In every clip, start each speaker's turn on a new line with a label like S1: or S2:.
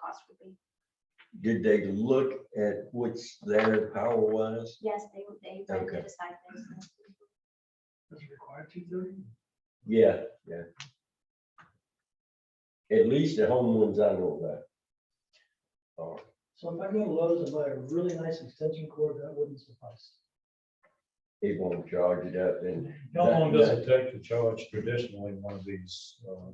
S1: cost would be.
S2: Did they look at what's there power wise?
S1: Yes, they, they would
S2: Okay.
S1: decide this.
S3: Does it require two thirty?
S2: Yeah, yeah. At least the home ones I know about. Or
S3: So if I go to Lowe's and buy a really nice extension cord, that wouldn't suffice.
S2: they won't charge it up and
S4: How long does it take to charge traditionally one of these? uh,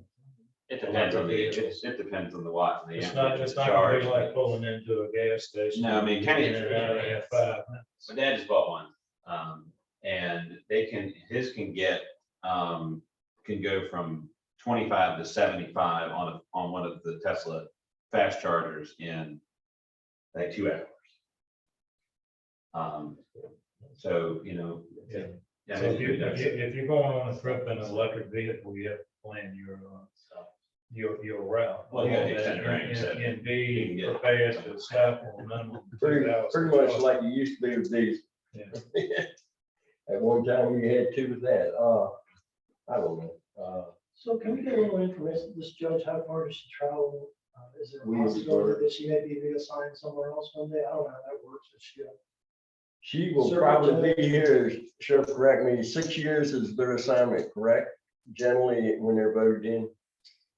S5: It depends on the,
S4: Electric vehicles.
S5: it depends on the watts and the.
S4: It's
S5: amperage
S4: not, it's
S5: of
S4: not gonna be
S5: charge,
S4: like pulling into a gas station.
S5: No, I mean,
S4: Get
S5: kinda-
S4: in and out in five minutes.
S5: My dad just bought one, um, and they can, his can get, um, can go from twenty-five to seventy-five on, a on one of the Tesla fast chargers in like two hours. Um, so, you know.
S4: Yeah.
S5: yeah,
S4: So if you,
S5: maybe
S4: if
S5: that's-
S4: you, if you're going on a trip in an electric vehicle, you have to plan your, uh, your, your route.
S5: Well, you gotta do center range, so-
S4: And- And be
S5: You can get-
S4: prepared to stop on minimum. two
S2: pretty,
S4: hours.
S2: pretty much like it used to be with these.
S4: Yeah.
S2: At one time you had two of that, uh, I don't know, uh.
S3: So can we get a little information, this judge, how far does she travel? Uh, Is there a
S2: We need to order.
S3: possibility that she may be reassigned somewhere else one day? I don't know how that works. Is she, uh, a-
S2: She will
S3: Sir,
S2: probably
S3: Lieutenant.
S2: be here, she'll correct me, six years is their assignment, correct? Generally, when they're voted in,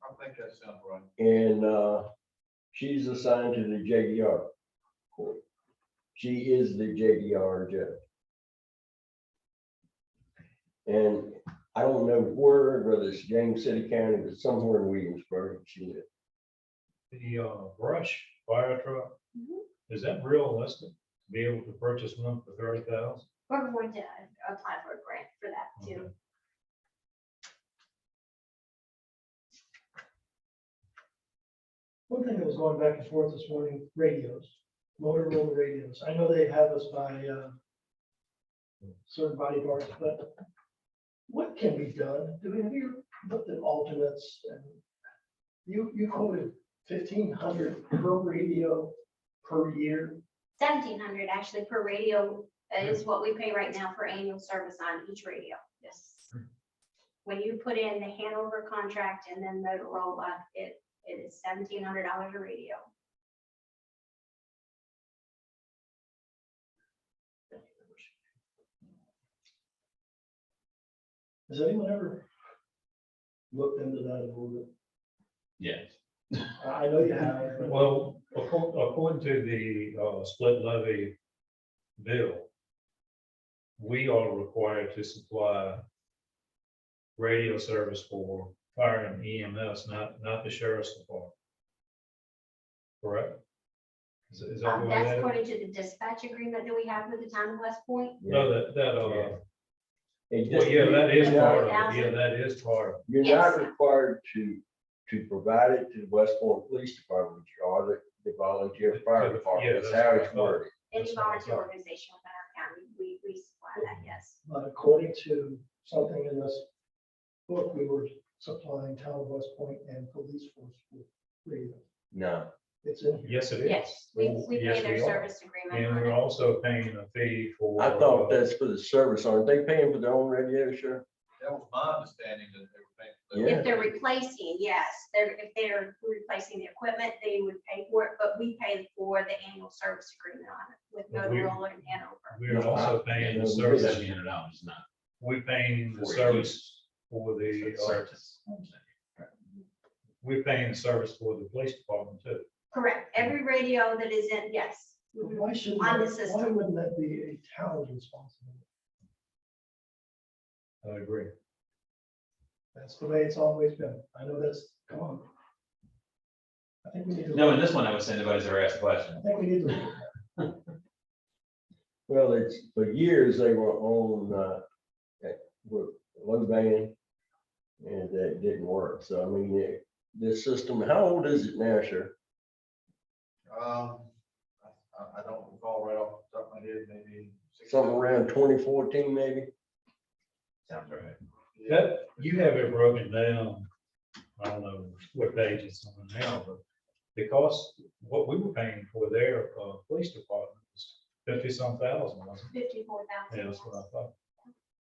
S6: I think that sounds right.
S2: and, uh, she's assigned to the JDR. court. She is the JDR judge. And I don't know where, whether it's James City County, but somewhere in Williamsburg, she lives.
S4: The, uh, brush fire truck,
S1: Mhm.
S4: is that realistic? to Be able to purchase one for thirty thousand?
S1: We're going to apply for a grant for that too.
S3: one thing that was going back and forth this morning, radios, Motorola radios. I know they have us by uh, certain body parts, but what can be done? Do we, have you looked at alternates? and You, you quoted fifteen hundred per radio per year.
S1: Seventeen hundred actually per radio is what we pay right now for annual service on each radio, yes.
S4: Hmm.
S1: When you put in the Hanover contract and then Motorola, it, it is seventeen hundred dollars a radio.
S3: Has anyone ever looked into that a little bit?
S5: Yes.
S3: I I know you have. but-
S4: Well, according, according to the, uh, split levy bill, we are required to supply radio service for fire and EMS, not, not the sheriff's department. Correct? Is, is that
S1: Um,
S4: what
S1: that's
S4: that?
S1: according to the dispatch agreement that we have with the town of West Point.
S4: No, that, that, uh,
S2: It
S4: well,
S2: just-
S4: yeah, that is
S2: you're not-
S4: part of it. Yeah, that is part of it.
S2: You're
S1: Yes.
S2: not required to, to provide it to the West Point Police Department, you are the, the volunteer
S4: Yeah,
S2: fire department,
S4: that's
S2: that's how
S4: what I
S2: it's
S4: thought.
S2: worded.
S1: Any
S4: That's what I
S1: volunteer
S4: thought.
S1: organization within our county, we, we supply that, yes.
S3: But according to something in this book, we were supplying town of West Point and police force with radio.
S2: No,
S3: It's in here.
S4: Yes, it is.
S1: Yes, we, we
S4: Yes,
S1: pay their
S4: we are.
S1: service agreement
S4: And
S1: on
S4: we're
S1: it.
S4: also paying a fee for.
S2: I thought
S4: uh,
S2: that's for the service, aren't they paying for their own radio, sure?
S6: That was my understanding that they were paying. for that.
S2: Yeah.
S1: If they're replacing, yes, they're, if they're replacing the equipment, they would pay for it, but we pay for the annual service agreement on it with
S4: But we-
S1: Motorola and Hanover.
S4: We're also paying the service.
S5: Seventeen hundred dollars, not.
S4: We're paying the
S5: for
S4: service for the,
S5: use.
S4: uh,
S5: Service.
S4: we're paying the service for the police department too.
S1: Correct, every radio that is in, yes.
S3: But
S4: Mm-hmm.
S3: Why should,
S1: On the
S3: that- why
S1: system.
S3: wouldn't that be a town's responsibility?
S4: I agree.
S3: That's the way it's always been. I know that's, come on. I think we need to.
S5: No, in this one, I would say nobody's ever asked a question.
S3: I think we need to.
S2: Well, it's, for years, they were on, uh, eh, with one band, and that didn't work, so I mean, eh, this system, how old is it now, sure?
S6: Um, I, I- I don't recall right off the top of my head, maybe. six-
S2: Something around twenty fourteen, maybe?
S5: Sounds right.
S6: Yeah.
S4: That, you have it broken down, I don't know what page it's on now, but the cost, what we were paying for their, uh, police department was fifty some thousand, wasn't
S1: Fifty-four
S4: it? Yeah,
S1: thousand.
S4: that's what I thought.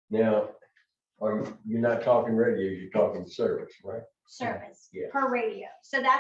S2: Now, are you, you're not talking radios, you're talking service, right?
S1: Service
S2: Yeah.
S1: per radio, so that's